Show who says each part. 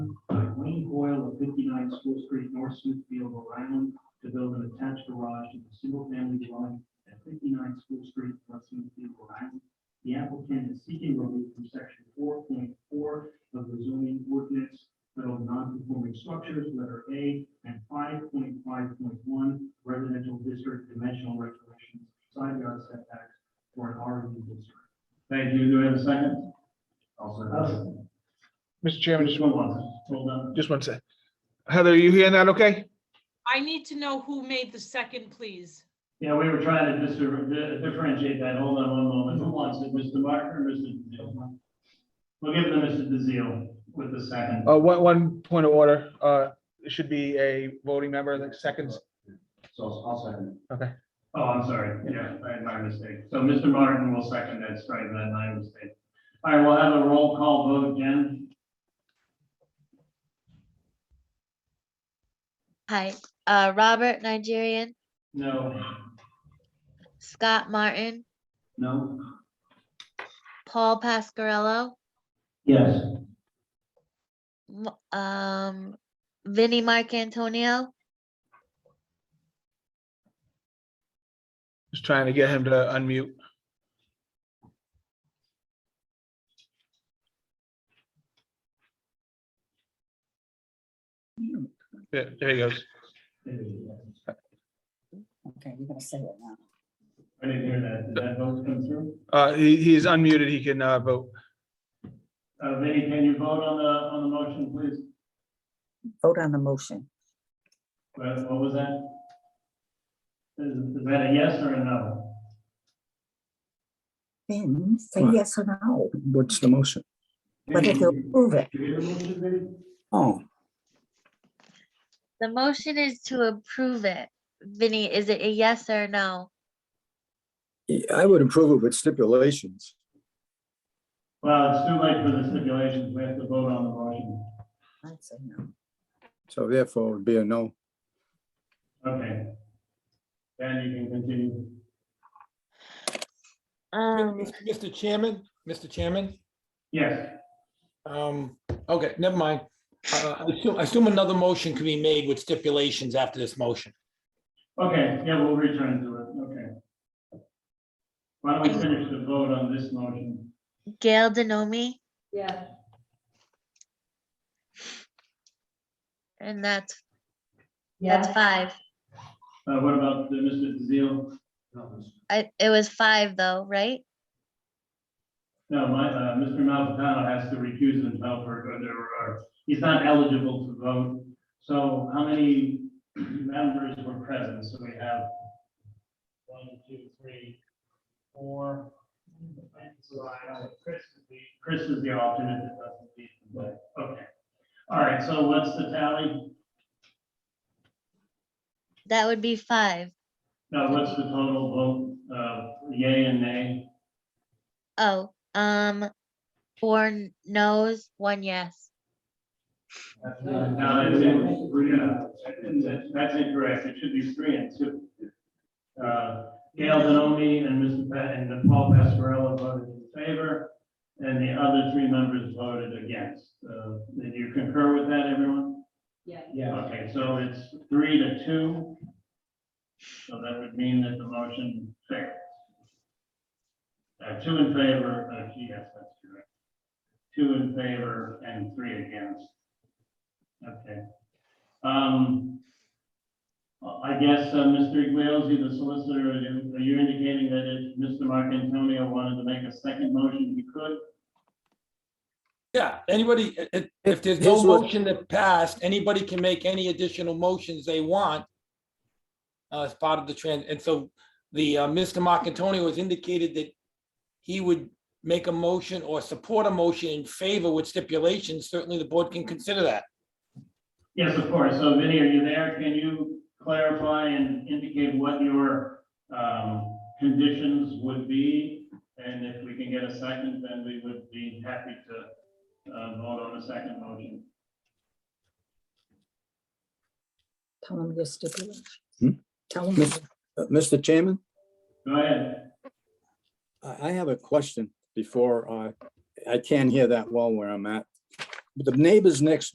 Speaker 1: fifty-nine School Street, North Smithfield, Rhode Island, to build an attached garage to the single-family dwelling at fifty-nine School Street, North Smithfield, Rhode Island. The applicant is seeking relief from section four point four of the zoning ordinance titled non-conforming structures, letter A, and five point five point one residential district dimensional regulations, side yard setbacks for an R and D district. Thank you. Do I have a second? Also.
Speaker 2: Mr. Chairman, just,
Speaker 1: Just one more. Hold on.
Speaker 2: just one sec. Heather, are you hearing that okay?
Speaker 3: I need to know who made the second, please.
Speaker 1: Yeah, we were trying to dis- di- differentiate that. Hold on one moment. Who wants it? Mr. Martin or Mr. DeZiel? We'll give it to Mr. DeZiel with the second.
Speaker 2: Uh, one, one point of order, uh, it should be a voting member that seconds.
Speaker 4: So I'll I'll second.
Speaker 1: Oh, I'm sorry. Yeah, I had my mistake. So Mr. Martin will second that, strike that, my mistake. All right, we'll have a roll call vote again.
Speaker 5: Hi, uh, Robert Nigerian,
Speaker 1: No.
Speaker 5: Scott Martin,
Speaker 1: No.
Speaker 5: Paul Pascarello,
Speaker 1: Yes.
Speaker 5: M- um, Vinnie Marcantonio,
Speaker 2: Just trying to get him to unmute. Yeah, there he goes.
Speaker 1: I
Speaker 6: Okay, you're gonna say it now.
Speaker 1: didn't hear that. Did that vote come through?
Speaker 2: Uh, he, he's unmuted, he can, uh, vote.
Speaker 1: Uh, Vinnie, can you vote on the, on the motion, please?
Speaker 6: Vote on the motion.
Speaker 1: What, what was that? Is, is that a yes or a no?
Speaker 6: Then say
Speaker 7: Right.
Speaker 6: yes or no,
Speaker 7: What's the motion?
Speaker 6: but if you approve it,
Speaker 1: Did you hear the motion, Vinnie?
Speaker 7: Oh,
Speaker 5: the motion is to approve it. Vinny, is it a yes or no?
Speaker 7: yeah, I would approve it with stipulations.
Speaker 1: Well, it's too late for the stipulations. We have to vote on the motion.
Speaker 6: I'd say no.
Speaker 7: So therefore, it would be a no.
Speaker 1: Okay. Then you can continue.
Speaker 5: Um,
Speaker 8: Mr. Chairman, Mr. Chairman,
Speaker 1: Yes,
Speaker 8: um, okay, never mind. Uh, I assume- I assume another motion can be made with stipulations after this motion.
Speaker 1: okay, yeah, we'll return to it, okay. Why don't we finish the vote on this motion?
Speaker 5: Gail Denomi,
Speaker 9: Yeah.
Speaker 5: and that's, that's
Speaker 9: Yeah.
Speaker 5: five.
Speaker 1: Uh, what about the Mr. DeZiel?
Speaker 5: I, it was five though, right?
Speaker 1: No, my, uh, Mr. Malzatano has to recuse himself or, or there are, he's not eligible to vote. So how many members were present? So we have one, two, three, four. So I don't- Chris is the- Chris is the alternate that doesn't need to vote. Okay. All right, so what's the tally?
Speaker 5: That would be five.
Speaker 1: Now, what's the total vote, uh, yay and nay?
Speaker 5: Oh, um, four n- no's, one yes.
Speaker 1: No, that's in- that's- that's incorrect. It should be three and two. Uh, Gail Denomey and Mr. Pat and Paul Pascarella voted in favor, and the other three members voted against. Uh, Did you concur with that, everyone?
Speaker 9: Yeah.
Speaker 1: Okay, so it's three to two. So that would mean that the motion fails. Uh, Two in favor, uh, yes, that's correct. Two in favor and three against. Okay. Um, I guess, uh, Mr. Iglesias, the solicitor, are you- are you indicating that if Mr. Mark Antonio wanted to make a second motion, he could?
Speaker 8: Yeah, anybody, i- i- if there's no
Speaker 7: Here's what-
Speaker 8: motion that passed, anybody can make any additional motions they want uh, as part of the trend. And so the, uh, Mr. Marcantonio has indicated that he would make a motion or support a motion in favor with stipulations. Certainly, the board can consider that.
Speaker 1: Yes, of course. So Vinnie, are you there? Can you clarify and indicate what your, um, conditions would be? And if we can get a second, then we would be happy to, uh, vote on a second motion.
Speaker 6: Tell them your stipulation.
Speaker 7: Hmm?
Speaker 6: Tell them.
Speaker 7: Miss- Uh, Mr. Chairman,
Speaker 1: Go ahead.
Speaker 7: I, I have a question before, uh, I can't hear that well where I'm at. The neighbors next